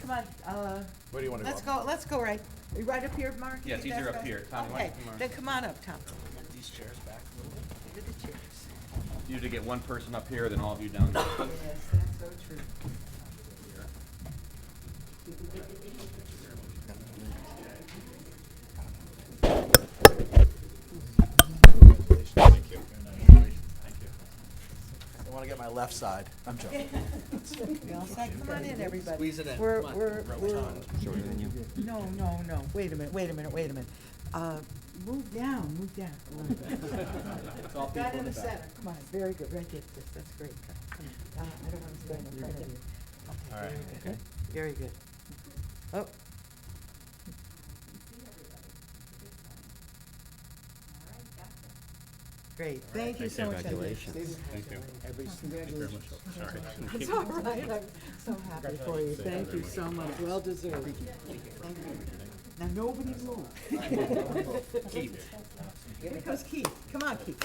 come on, uh, Where do you want to go? let's go, let's go right, right up here, Mark? Yeah, it's You think easier that's up best? here. Tommy, why don't you come Okay, around? then come on up, Tom. Move These chairs back a little bit. Look at the chairs. Usually get one person up here, then all of you down here. Yes, that's so true. Thank you. Thank you. I want to get my left side. I'm joking. We all said, come on in, everybody. Squeeze it in. We're, Come on. we're, we're, Shorter than you. no, no, no, wait a minute, wait a minute, wait a minute. Uh, move down, move down. It's all Got people in in the the back. center, come on, very good, right there, that's, that's great. Come on. Uh, I don't want to stand in front of you. Okay, All right. very good. Very good. Oh. Great, thank you so much. Congratulations. Thank you. It's all right, I'm so happy for you, thank you so much, well deserved. Thank you. Now, nobody move. Keith. Here comes Keith, come on Keith.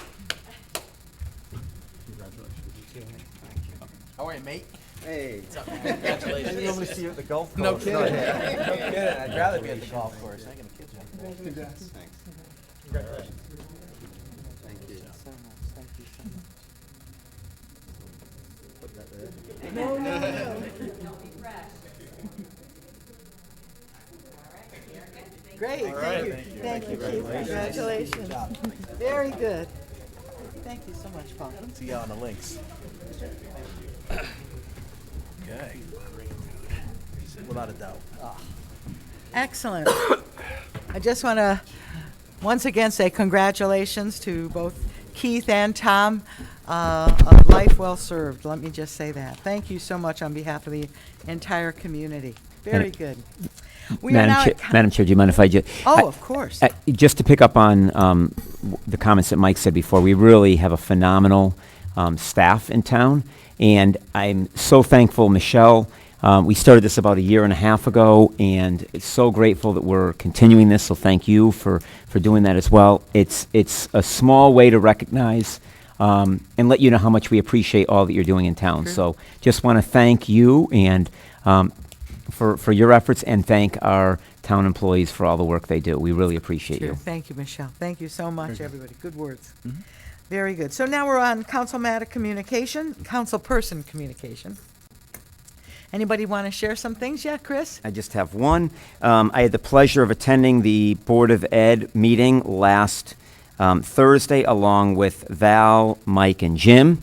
How are you, mate? Hey. Congratulations. I normally see you at the golf No course. kidding. No kidding. I'd rather be at the Congratulations. golf course. I ain't gonna kid you. Congratulations. Thanks. Congratulations. Thank So much, thank you so much. Oh, No, no, no. Great, thank you, thank you, Chief, congratulations. Very good. Thank you so much, Paul. See you on the links. Okay. Without a doubt. Ah. Excellent. I just want to once again say congratulations to both Keith and Tom. Uh, a life well served, let me just say that. Thank you so much on behalf of the entire community. Very good. We are Madam, now Chair, at co- Madam Chair, do you mind if I just? Oh, of course. Just to pick up on um, w- the comments that Mike said before, we really have a phenomenal um, staff in town, and I'm so thankful, Michelle. Um, we started this about a year and a half ago, and it's so grateful that we're continuing this. So thank you for for doing that as well. It's it's a small way to recognize um, and let you know how much we appreciate all that you're doing in town. So just want to thank you and. Um, for, for your efforts and thank our town employees for all the work they do. We really appreciate Sure. you. Mm-hmm. Thank you, Michelle. Thank you so much, everybody. Good words. Very good. So now we're on council matter communication, council person communication. Anybody want to share some things? Yeah, Chris? I just have one. Um, I had the pleasure of attending the Board of Ed meeting last um, Thursday, along with Val, Mike, and Jim.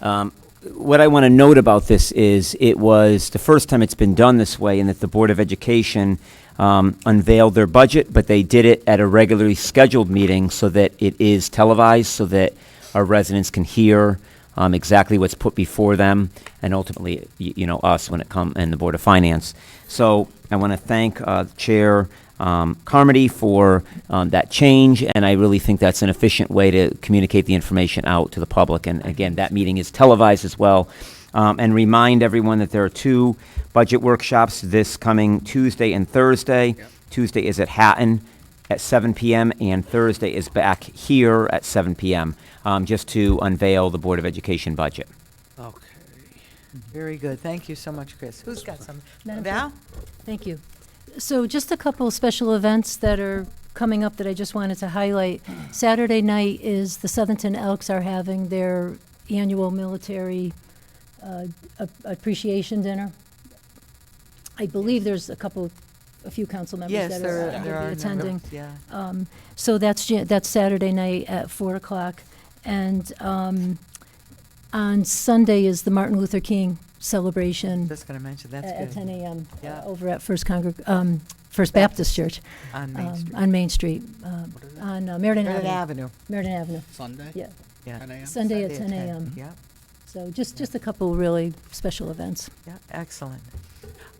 Um, what I want to note about this is it was the first time it's been done this way, and that the Board of Education um, unveiled their budget, but they did it at a regularly scheduled meeting so that it is televised, so that our residents can hear um, exactly what's put before them, and ultimately, y- you know, us when it come and the Board of Finance. So I want to thank uh, Chair um, Carmody for um, that change, and I really think that's an efficient way to communicate the information out to the public. And again, that meeting is televised as well. Um, and remind everyone that there are two budget workshops this coming Tuesday and Thursday. Tuesday is at Hatton, at 7 p.m. and Thursday is back here at 7 p.m. Um, just to unveil the Board of Education budget. Okay. Very good. Thank you so much, Chris. Who's got some? Val? Thank you. So just a couple of special events that are coming up that I just wanted to highlight. Saturday night is the Southington Elks are having their annual military uh, ap- appreciation dinner. I believe there's a couple, a few council members Yes, that there are are, there gonna are. be a number- attending. Yeah. Um, so that's, Ja- that's Saturday night at four o'clock. And, um, on Sunday is the Martin Luther King celebration Just going to mention, Um, at at that's 10 good. a.m. uh, Yeah. over at First Congreg, um, First Baptist Church. On Main um, Street. On Main Street, uh, on uh, Meriden Merritt Avenue. Avenue. Meriden Avenue, Sunday? yeah. Yeah. 10 a.m.? Sunday at 10 Sunday a.m. Yeah, So just, just a couple really special events. yeah, excellent.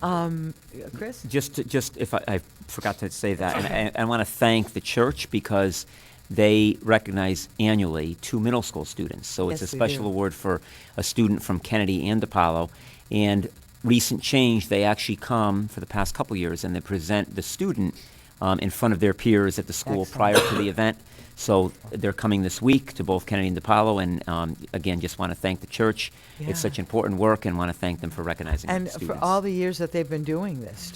Um, uh, Chris? Just, to- just if I, I forgot to say that, and I, I want to thank the church because they recognize annually two middle school students. So it's a Yes, they special do. award for a student from Kennedy and Apollo. And recent change, they actually come for the past couple years and they present the student um, in front of their peers at the school prior to the event. So they're coming this week to both Kennedy and DePaulo, and um, again, just want to thank the church. Yeah. It's such important work, and want to thank them for recognizing the And students. for all the years that they've been doing this,